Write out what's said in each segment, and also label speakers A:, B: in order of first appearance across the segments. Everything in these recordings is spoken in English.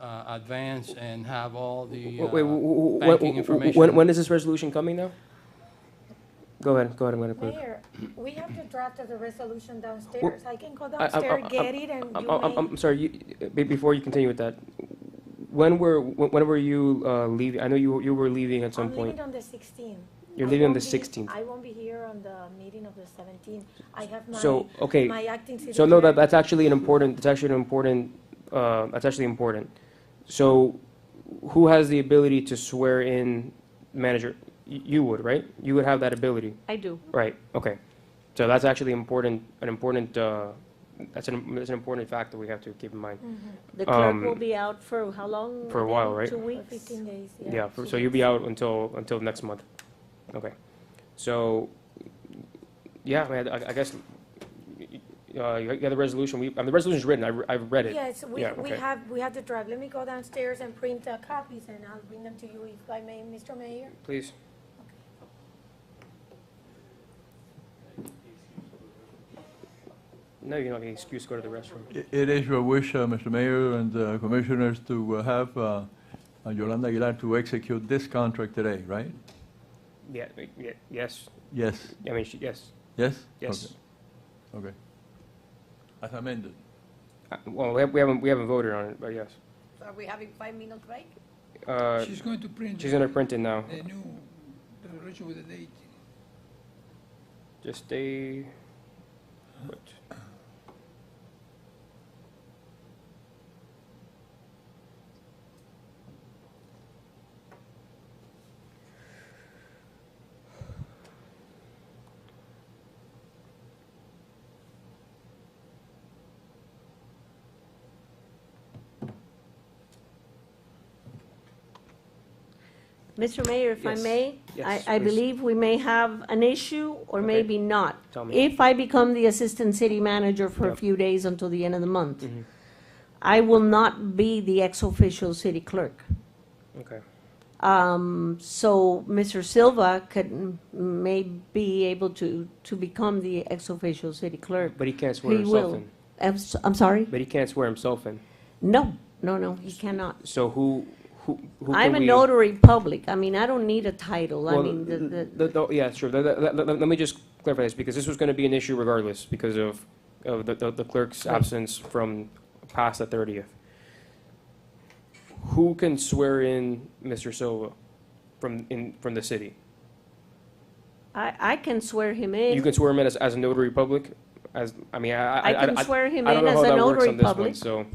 A: uh, advance and have all the
B: Wait, wait,
A: uh,
B: wh- wh-
A: banking
B: wh- wh- when, when
A: information.
B: is this resolution coming now? Go ahead, go ahead, I'm gonna put it.
C: Mayor, we have the draft of the resolution downstairs. I can go
B: I- I'm-
C: downstairs,
B: I'm-
C: get it, and
B: I'm,
C: you
B: Oh, I'm,
C: may.
B: I'm sorry, you, be- before you continue with that, when were, when when were you, uh, leaving? I know you, were- you were leaving at some
C: I'm
B: point.
C: leaving on the 16th.
B: You're
C: I
B: leaving on
C: won't
B: the
C: be-
B: 16th.
C: I won't be here on the meeting of the 17th. I have my,
B: So, okay,
C: my acting city.
B: So no, that,
C: clerk.
B: that's actually an important, that's actually an important, uh, that's actually important. So who has the ability to swear in manager? Y- You would, right? You would have that ability,
D: I do.
B: right? Okay. So that's actually important, an important, uh, that's an, that's an important fact that we have to keep in mind.
C: Mm-hmm.
D: The clerk
B: Um,
D: will be out for how long?
B: for a while, right?
D: Two
C: For
D: weeks?
C: 15 days, yeah.
B: Yeah, for- so you'll be out until, until next month. Okay. So, yeah, I mean, I I guess, y- y- uh, you got the resolution, we, I mean, the resolution's written, I re- I've read it.
C: Yes, we,
B: Yeah,
C: we
B: okay.
C: have, we have the draft. Let me go downstairs and print the copies, and I'll bring them to you if I may, Mr. Mayor.
B: Please. No, you're not getting excuse to go to the restroom.
E: I- It is your wish, uh, Mr. Mayor and uh, Commissioners, to uh, have uh, uh, Yolanda Aguilar to execute this contract today, right?
B: Yeah, yeah, yes,
E: Yes,
B: I mean, she- yes,
E: yes?
B: yes.
E: Okay. Okay. As amended.
B: Uh, Well, we have- we haven't, we haven't voted on it, but yes.
F: Are we having five minutes break?
B: Uh,
G: She's going to print
B: She's gonna print it now.
G: the new resolution with the date.
B: Just stay. put.
D: Mr. Mayor, if I
B: Yes.
D: may, I,
B: Yes,
D: I
B: please.
D: believe we may have an issue or
B: Okay. Mm-hmm.
D: maybe not.
B: Tell me.
D: If I become the assistant city manager for a
B: Yep.
D: few days until the end of the month,
B: Mhm.
D: I will not be the ex-official city clerk.
B: Okay.
D: Um, so Mr. Silva could, may be able to, to become the ex-official city clerk.
B: But he can't swear
D: He
B: himself
D: will.
B: in.
D: I'm, s- I'm sorry?
B: But he can't swear himself in.
D: No, no, no, he cannot.
B: So who, who, who
D: I'm
B: can
D: a
B: we-
D: notary public. I mean, I don't need a title. I
B: Well,
D: mean, the, the,
B: the- the- yeah, sure. Let, let- let- let me just clarify this, because this was gonna be an issue regardless, because of, of the- the, the clerk's
D: Right.
B: absence from past the thirtieth. Who can swear in Mr. Silva from, in, from the city?
D: I, I can swear him
B: You
D: in.
B: can swear him in as, as a notary public, as, I mean, I, I,
D: I
B: I, I
D: can swear him
B: I
D: in
B: don't know how
D: as a
B: that works
D: notary
B: on this one,
D: public.
B: so.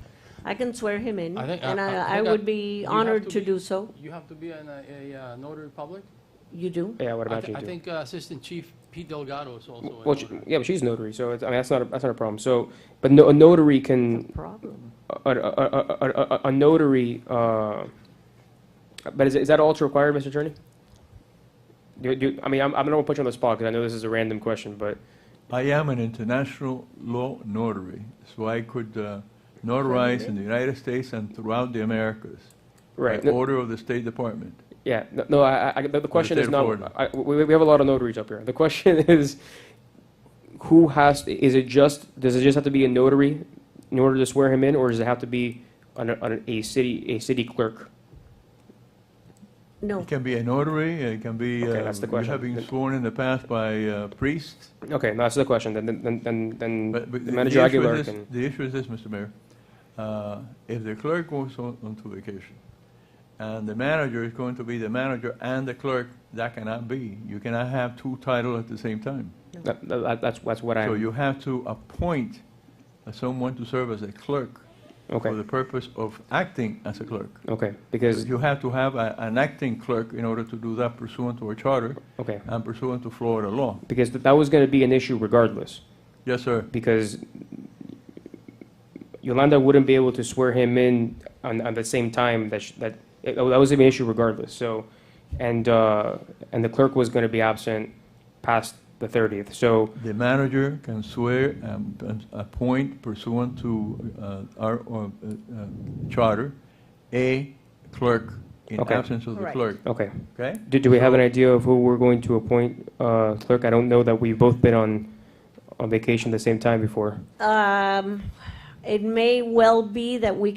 D: I can swear him in,
A: I think-
D: and
A: I- I
D: I, I
A: think I-
D: would be
A: you have
D: honored
A: to
D: to
A: be-
D: do so.
A: You have to be an, uh, a uh, notary public?
D: You do?
B: Yeah, what
A: I
B: about
A: thi-
B: you
A: I
B: do?
A: think uh, Assistant Chief Pete Delgado is also a
B: Well, she-
A: notary.
B: yeah, but she's a notary, so it's, I mean, that's not, a- that's not a problem. So, but no, a notary
D: No
B: can,
D: problem.
B: a, a, a- a, a, a notary, uh, but is, is that all it's required, Mr. Attorney? Do, do, I mean, I'm, I'm not gonna put you on the spot, because I know this is a random question, but,
E: I am an international law notary, so I could uh, notarize in the United States and throughout the Americas.
B: right,
E: By
B: no-
E: order of the State Department.
B: yeah, no- no, I, I- I, the the question is
E: state of
B: not,
E: Florida.
B: I, we, we have a lot of notaries up here. The question is, who has, is it just, does it just have to be a notary in order to swear him in, or does it have to be on a, on a city, a city clerk?
D: No,
E: It can be a notary, it can be,
B: Okay,
E: uh,
B: that's the
E: you
B: question.
E: have been sworn in the past by uh, priests.
B: Okay, no, that's the question. Then, then, then, then
E: But- but
B: the
E: the
B: manager
E: issue
B: Aguilar
E: is this-
B: can.
E: The issue is this, Mr. Mayor. Uh, If the clerk goes on onto vacation, and the manager is going to be the manager and the clerk, that cannot be. You cannot have two titles at the same time.
B: That, that, that's that's what
E: So
B: I'm.
E: you have to appoint someone to serve as a clerk for
B: Okay,
E: the purpose of acting as a clerk.
B: okay, because
E: You have to have a- an acting clerk in order to do that pursuant to our charter
B: okay,
E: and pursuant to Florida law.
B: because th- that was going to be an issue regardless.
E: Yes, sir.
B: Because Yolanda wouldn't be able to swear him in on, on the same time that sh that it, that was an issue regardless. So, and uh, and the clerk was going to be absent past the thirtieth. So
E: The manager can swear and and appoint pursuant to uh, our uh, uh, charter, a clerk in
B: Okay.
E: absence of the
D: Correct.
E: clerk,
B: okay.
E: okay?
B: Do, do we have an idea of who we're going to appoint uh, clerk? I don't know that we've both been on, on vacation at the same time before.
D: um, it may well be that we